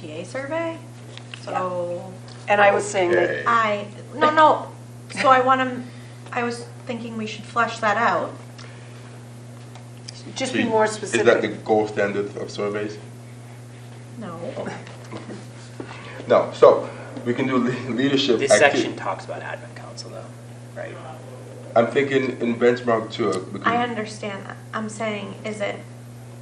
TA survey, so And I was saying that, Okay. I, no, no, so I want to, I was thinking we should flesh that out. just be more Is that the specific. gold standard of surveys? No, No, so we can do le- leadership. This acti- section talks about admin council though, right? I'm thinking in benchmark two. we I can- understand that. I'm saying, is it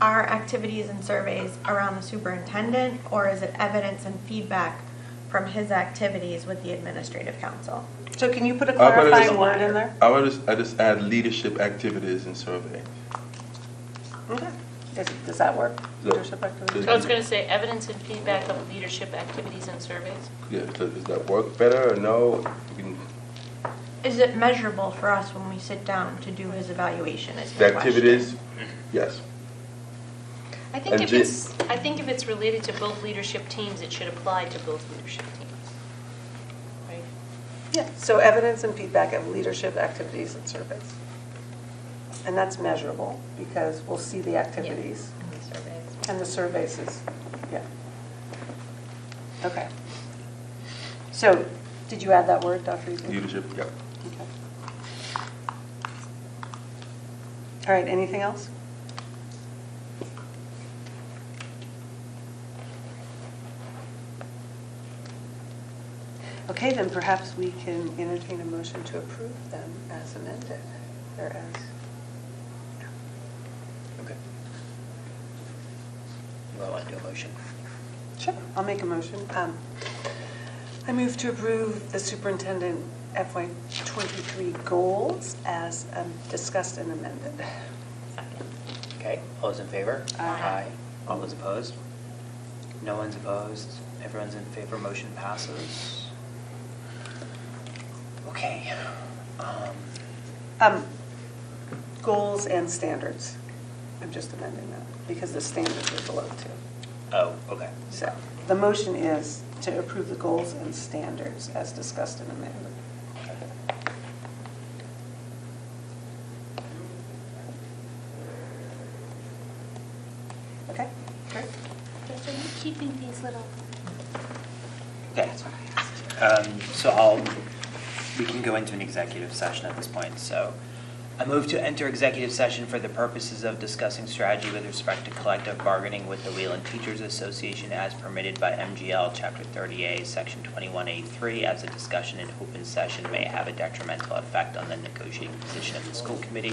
our activities and surveys around the superintendent, or is it evidence and feedback from his activities with the administrative council? So can you put a I wanna clarifying just- word in there? I would just, I just add leadership activities in survey. Okay. Does- Does that work? Yeah. Leadership activities? I was going to say evidence and feedback of leadership activities and surveys. Yeah, so does that work better or no? We can- Is it measurable for us when we sit down to do his evaluation is The the question. activities, yes. I think And if thi- it's, I think if it's related to both leadership teams, it should apply to both leadership teams. Right? Yeah, so evidence and feedback of leadership activities and surveys. And that's measurable because we'll see the activities Yeah, in the surveys. and the surveys is, yeah. Okay. So, did you add that word, Dr. Easley? Leadership, yeah. Okay. All right, anything else? Okay, then perhaps we can entertain a motion to approve them as amended, or as, Okay. Well, I do a motion. Sure, I'll make a motion. Um, I move to approve the superintendent FY '23 goals as um, discussed and amended. Second. Okay, all those in favor? Aye. All those opposed? No one's opposed, everyone's in favor, motion passes. Okay. um, Um, Goals and standards. I'm just amending that because the standards are below two. Oh, okay. So the motion is to approve the goals and standards as discussed and amended. Okay, great. Yes, Are you keeping these little? Okay. Um, So I'll, we can go into an executive session at this point, so. I move to enter executive session for the purposes of discussing strategy with respect to collective bargaining with the Wheeling Teachers Association as permitted by MGL Chapter 30A, Section 21A3, as a discussion in open session may have a detrimental effect on the negotiating position of the school committee,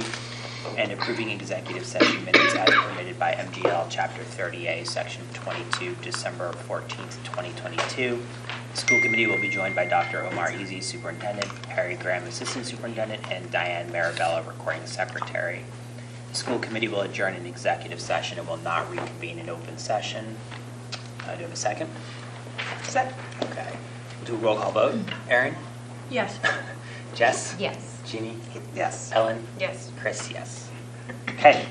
and approving executive session minutes as permitted by MGL Chapter 30A, Section 22, December 14th, 2022. The School committee will be joined by Dr. Omar Easy, Superintendent, Harry Graham, Assistant Superintendent, and Diane Marabella, Recording Secretary. The school committee will adjourn in executive session and will not reconvene in open session. Uh, Do you have a second? Set. Okay. We'll do a roll call vote. Erin? Yes. Jess? Yes. Jeannie? Yes. Ellen? Yes. Chris, yes. Okay.